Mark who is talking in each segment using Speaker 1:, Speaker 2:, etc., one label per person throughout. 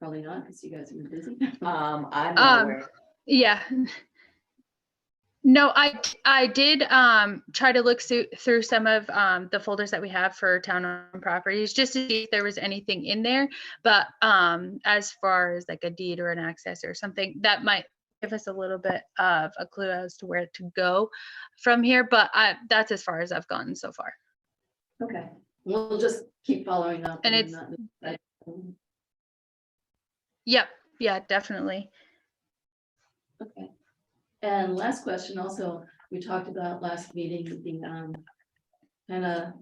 Speaker 1: Probably not, because you guys have been busy.
Speaker 2: Um, I'm
Speaker 3: Um,
Speaker 2: not aware.
Speaker 3: Yeah. No, I, I did, um, try to look through, through some of, um, the folders that we have for town owned properties, just to see if there was anything in there. But, um, as far as like a deed or an access or something, that might give us a little bit of a clue as to where to go from here, but I, that's as far as I've gotten so far.
Speaker 1: Okay, we'll just keep following up.
Speaker 3: And
Speaker 1: not- I-
Speaker 3: Yep, yeah, definitely.
Speaker 1: Okay. And last question also, we talked about last meeting, the, um, kind of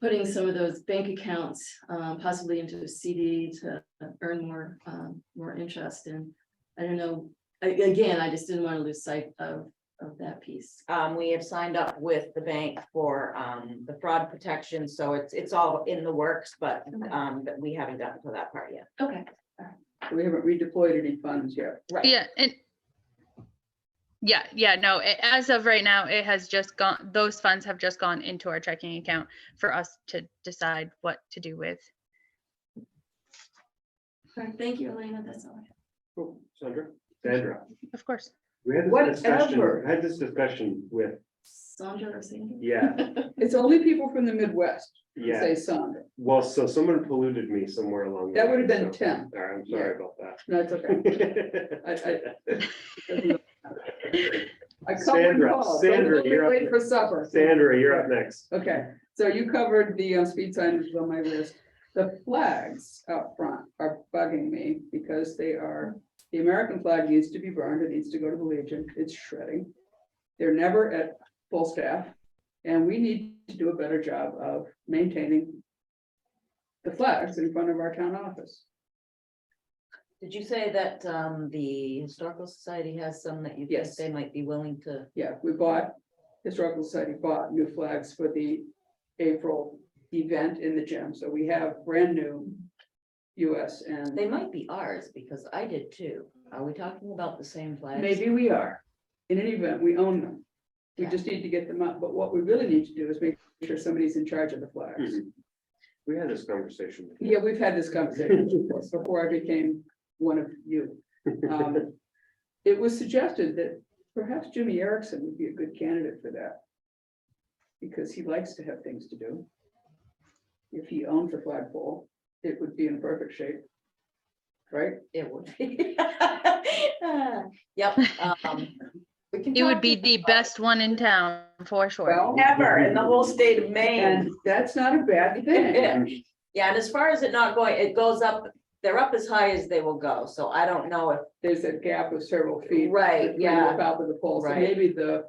Speaker 1: putting some of those bank accounts, um, possibly into a CD to earn more, um, more interest and I don't know, a- again, I just didn't want to lose sight of, of that piece.
Speaker 2: Um, we have signed up with the bank for, um, the fraud protection, so it's, it's all in the works, but, um, but we haven't gotten to that part yet.
Speaker 1: Okay,
Speaker 4: We haven't redeployed any funds yet.
Speaker 2: Right.
Speaker 3: Yeah, and yeah, yeah, no, a- as of right now, it has just gone, those funds have just gone into our checking account for us to decide what to do with.
Speaker 1: all right, thank you, Elena, that's all I have.
Speaker 5: Sandra? Sandra.
Speaker 3: Of course.
Speaker 5: We had this discussion,
Speaker 4: Whatever.
Speaker 5: we had this discussion with,
Speaker 1: Sandra or Sandy?
Speaker 5: yeah,
Speaker 4: It's only people from the Midwest who
Speaker 5: yeah.
Speaker 4: say Sandra.
Speaker 5: Well, so someone polluted me somewhere along. the
Speaker 4: That would've
Speaker 5: way,
Speaker 4: been
Speaker 5: so-
Speaker 4: Tim.
Speaker 5: All right, I'm sorry
Speaker 4: Yeah.
Speaker 5: about
Speaker 4: No, it's okay.
Speaker 5: that.
Speaker 4: I- I covered
Speaker 5: Sandra,
Speaker 4: Paul.
Speaker 5: Sandra, you're up
Speaker 4: Wait for supper.
Speaker 5: Sandra, you're up next.
Speaker 4: Okay, so you covered the uh, speed signs on my list. The flags out front are bugging me because they are, the American flag needs to be burned. It needs to go to the Legion. It's shredding. They're never at full staff. And we need to do a better job of maintaining the flags in front of our town office.
Speaker 2: Did you say that, um, the historical society has some that you think
Speaker 4: Yes.
Speaker 2: they might be willing to?
Speaker 4: Yeah, we bought, Historical Society bought new flags for the April event in the gym. So we have brand new US and.
Speaker 2: They might be ours, because I did too. Are we talking about the same flags?
Speaker 4: Maybe we are. In any event, we own them. We
Speaker 2: Yeah.
Speaker 4: just need to get them up, but what we really need to do is make sure somebody's in charge of the flags.
Speaker 5: Mhm. We had this conversation. before.
Speaker 4: Yeah, we've had this conversation before, before I became one of you. Um, It was suggested that perhaps Jimmy Erickson would be a good candidate for that. Because he likes to have things to do. If he owned the flagpole, it would be in perfect shape. Right?
Speaker 2: It would be. Yep. um, we can
Speaker 3: It would
Speaker 2: talk
Speaker 3: be
Speaker 2: to
Speaker 3: the
Speaker 2: them.
Speaker 3: best one in town for sure.
Speaker 4: Well,
Speaker 5: Ever in the whole
Speaker 2: state of
Speaker 4: and that's not a bad thing.
Speaker 2: Yeah, and as far as it not going, it goes up, they're up as high as they will go, so I don't know if,
Speaker 4: there's a gap of several feet.
Speaker 2: Right,
Speaker 4: between
Speaker 2: yeah.
Speaker 4: The top of the pole, so
Speaker 2: Right.
Speaker 4: maybe the,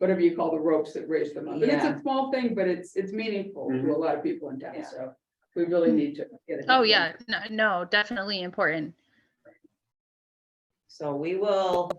Speaker 4: whatever you call the ropes that raise them up, but it's a small thing, but it's, it's meaningful to a
Speaker 5: Mhm.
Speaker 4: lot of people in town,
Speaker 2: Yeah.
Speaker 4: so. We really need to get it.
Speaker 3: Oh, yeah, no, no, definitely important.
Speaker 2: so we will.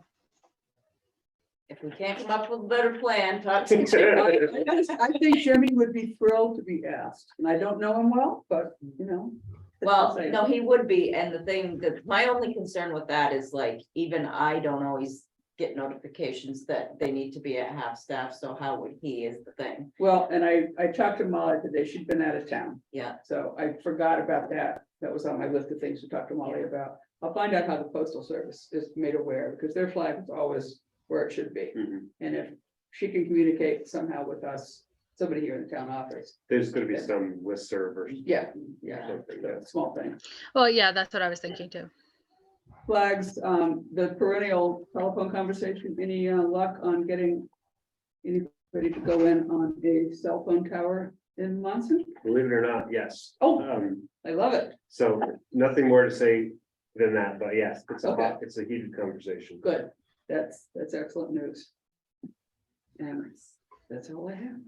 Speaker 2: If we can't come up with a better plan, talk to Jim.
Speaker 4: I think Jimmy would be thrilled to be asked, and I don't know him well, but, you know. that's
Speaker 2: Well,
Speaker 4: what I'm
Speaker 2: no,
Speaker 4: saying.
Speaker 2: he would be, and the thing that, my only concern with that is like, even I don't always get notifications that they need to be at half staff, so how would he is the thing,
Speaker 4: Well, and I, I talked to Molly today, she'd been out of town,
Speaker 2: yeah,
Speaker 4: so I forgot about that, that was on my list of things to talk to Molly about. I'll find out how the postal service is made aware, because their flag is always where it should be.
Speaker 5: Mhm.
Speaker 4: And if she can communicate somehow with us, somebody here in the town office,
Speaker 5: There's gonna be some listserv or
Speaker 4: yeah, yeah, the
Speaker 5: something. that's-
Speaker 4: small thing.
Speaker 3: Well, yeah, that's what I was thinking too.
Speaker 4: Flags, um, the perennial telephone conversation, any uh, luck on getting anybody to go in on a cell phone tower in Monson?
Speaker 5: Believe it or not, yes.
Speaker 4: Oh,
Speaker 5: Um,
Speaker 4: I love it,
Speaker 5: so nothing more to say than that, but yes, it's a, hot-
Speaker 4: Okay.
Speaker 5: it's a heated conversation.
Speaker 4: good, that's, that's excellent news. And that's all I have.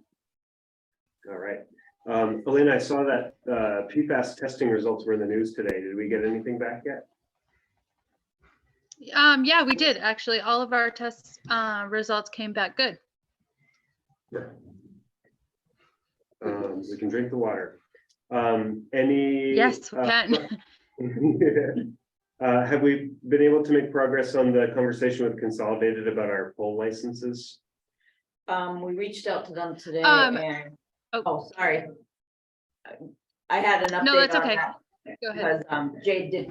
Speaker 5: All right. Um, Elena, I saw that, uh, PFAS testing results were in the news today. Did we get anything back yet?
Speaker 3: Um, yeah, we did, actually. All of our tests, uh, results came back good.
Speaker 5: Um, we can drink the water. Um, any?
Speaker 3: Yes, we
Speaker 5: uh,
Speaker 3: can.
Speaker 5: Uh, have we been able to make progress on the conversation with Consolidated about our poll licenses?
Speaker 2: um, we reached out to them today
Speaker 3: Um,
Speaker 2: and,
Speaker 3: oh.
Speaker 2: oh, sorry. I had an update.
Speaker 3: No, that's
Speaker 2: on
Speaker 3: okay.
Speaker 2: that
Speaker 3: Go ahead.
Speaker 2: Because, um, Jade did